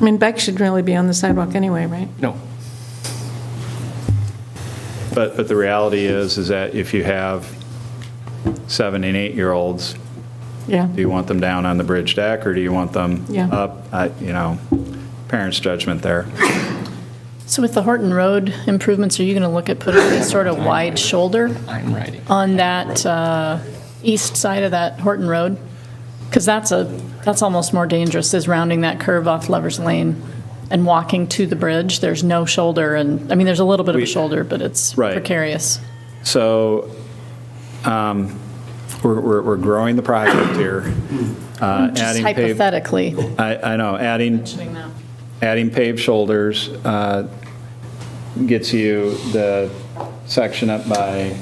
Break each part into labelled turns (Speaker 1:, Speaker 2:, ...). Speaker 1: I mean, bikes should really be on the sidewalk anyway, right?
Speaker 2: No. But, but the reality is, is that if you have seven and eight-year-olds,
Speaker 1: Yeah.
Speaker 2: do you want them down on the bridge deck, or do you want them
Speaker 1: Yeah.
Speaker 2: up? I- You know, parents' judgment there.
Speaker 3: So with the Horton Road improvements, are you going to look at putting a sort of wide shoulder
Speaker 4: I'm writing.
Speaker 3: on that uh, east side of that Horton Road? Because that's a, that's almost more dangerous, is rounding that curve off Lover's Lane and walking to the bridge. There's no shoulder, and, I mean, there's a little bit of a
Speaker 2: We-
Speaker 3: shoulder, but it's
Speaker 2: Right.
Speaker 3: precarious.
Speaker 2: So um, we're, we're we're growing the project here. uh,
Speaker 3: Just
Speaker 2: adding pave-
Speaker 3: hypothetically.
Speaker 2: I, I know, adding, adding paved shoulders uh, gets you the section up by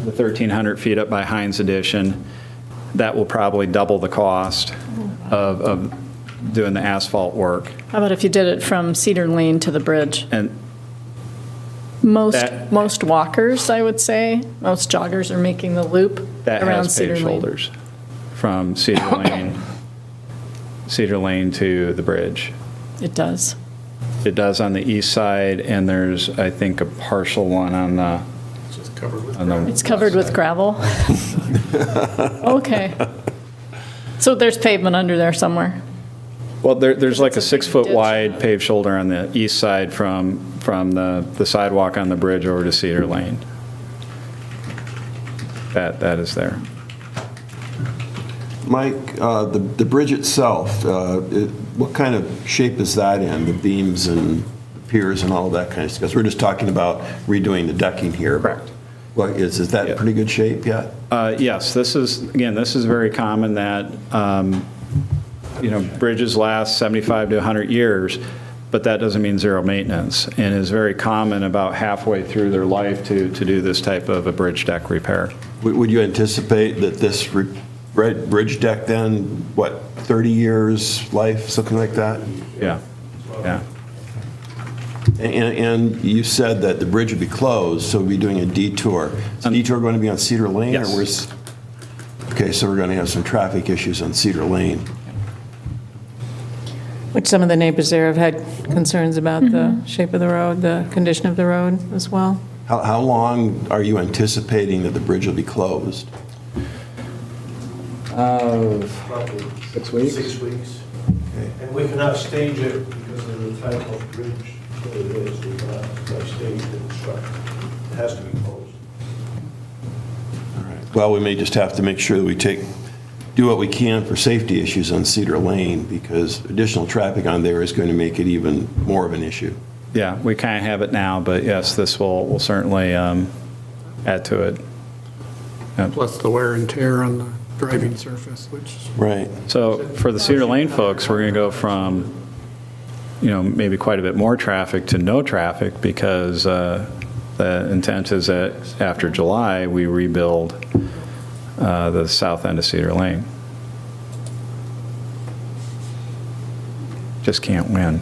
Speaker 2: the 1,300 feet up by Heinz Edition. That will probably double the cost of, of doing the asphalt work.
Speaker 3: How about if you did it from Cedar Lane to the bridge?
Speaker 2: And
Speaker 3: Most,
Speaker 2: That-
Speaker 3: most walkers, I would say, most joggers are making the loop
Speaker 2: that
Speaker 3: around
Speaker 2: has
Speaker 3: Cedar
Speaker 2: paved
Speaker 3: Lane.
Speaker 2: shoulders from Cedar Lane, Cedar Lane to the bridge.
Speaker 3: It does.
Speaker 2: It does on the east side, and there's, I think, a partial one on the, on the
Speaker 3: It's covered with gravel? Okay. So there's pavement under there somewhere.
Speaker 2: Well, there, there's like a
Speaker 3: It's a big
Speaker 2: six-foot
Speaker 3: ditch.
Speaker 2: wide paved shoulder on the east side from, from the, the sidewalk on the bridge over to Cedar Lane. That, that is there.
Speaker 5: Mike, uh, the the bridge itself, uh, it- what kind of shape is that in, the beams and piers and all that kind of stuff? 'Cause We're just talking about redoing the decking here.
Speaker 2: Correct.
Speaker 5: Well, is, is that in
Speaker 2: Yeah.
Speaker 5: pretty good shape yet?
Speaker 2: Uh, Yes, this is, again, this is very common that, um, you know, bridges last 75 to 100 years, but that doesn't mean zero maintenance, and is very common about halfway through their life to, to do this type of a bridge deck repair.
Speaker 5: Would would you anticipate that this re- red bridge deck then, what, 30 years life, something like that?
Speaker 2: Yeah, yeah.
Speaker 5: And- And and you said that the bridge would be closed, so we'd be doing a detour. Is the detour going to be on Cedar Lane? or
Speaker 2: Um, Yes.
Speaker 5: where's- Okay, so we're going to have some traffic issues on Cedar Lane.
Speaker 1: Which some of the neighbors there have had concerns about the shape of the road, the condition of the road as well.
Speaker 5: How, how long are you anticipating that the bridge will be closed?
Speaker 2: Six weeks?
Speaker 6: Six weeks. And we cannot stage it because of the type of bridge that it is. We cannot like, stage the construction. It has to be closed.
Speaker 5: Well, we may just have to make sure that we take, do what we can for safety issues on Cedar Lane, because additional traffic on there is going to make it even more of an issue.
Speaker 2: Yeah, we kind of have it now, but yes, this will, will certainly um, add to it.
Speaker 7: plus the wear and tear on the driving surface, which
Speaker 5: Right.
Speaker 2: So for the Cedar Lane folks, we're going to go from, you know, maybe quite a bit more traffic to no traffic because uh, the intent is that after July, we rebuild uh, the south end of Cedar Lane. Just can't win.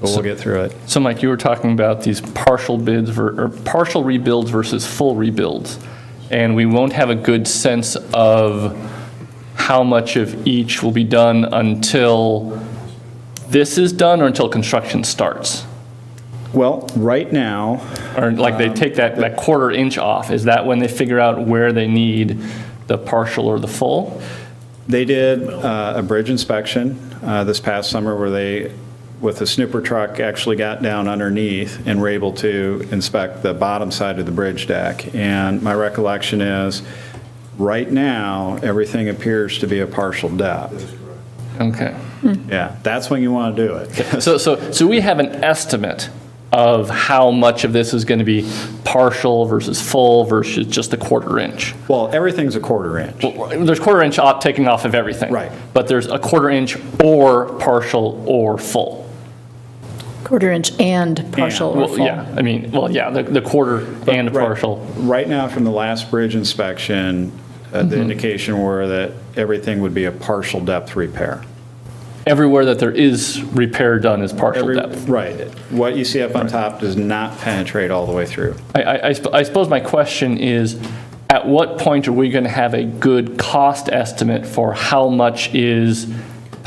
Speaker 2: But we'll get through it.
Speaker 4: So Mike, you were talking about these partial bids ver- or partial rebuilds versus full rebuilds. And we won't have a good sense of how much of each will be done until this is done or until construction starts.
Speaker 2: Well, right now,
Speaker 4: Or like they take that, that quarter inch off. Is that when they figure out where they need the partial or the full?
Speaker 2: They did uh, a bridge inspection uh, this past summer where they, with a snooper truck, actually got down underneath and were able to inspect the bottom side of the bridge deck. And my recollection is, right now, everything appears to be a partial depth.
Speaker 4: Okay.
Speaker 2: Yeah, that's when you want to do it.
Speaker 4: So, so, so we have an estimate of how much of this is going to be partial versus full versus just a quarter inch.
Speaker 2: Well, everything's a quarter inch.
Speaker 4: Well, There's quarter inch op taking off of everything.
Speaker 2: Right.
Speaker 4: But there's a quarter inch or partial or full.
Speaker 3: Quarter inch and partial or
Speaker 4: Well,
Speaker 3: full.
Speaker 4: yeah, I mean, well, yeah, the, the quarter and
Speaker 2: Right.
Speaker 4: partial.
Speaker 2: Right now, from the last bridge inspection, uh,
Speaker 4: Mm-hmm.
Speaker 2: the indication were that everything would be a partial depth repair.
Speaker 4: Everywhere that there is repair done is partial
Speaker 2: Every-
Speaker 4: depth.
Speaker 2: Right. What you see up on top does not penetrate all the way through.
Speaker 4: I- I, I sp- I suppose my question is, at what point are we going to have a good cost estimate for how much is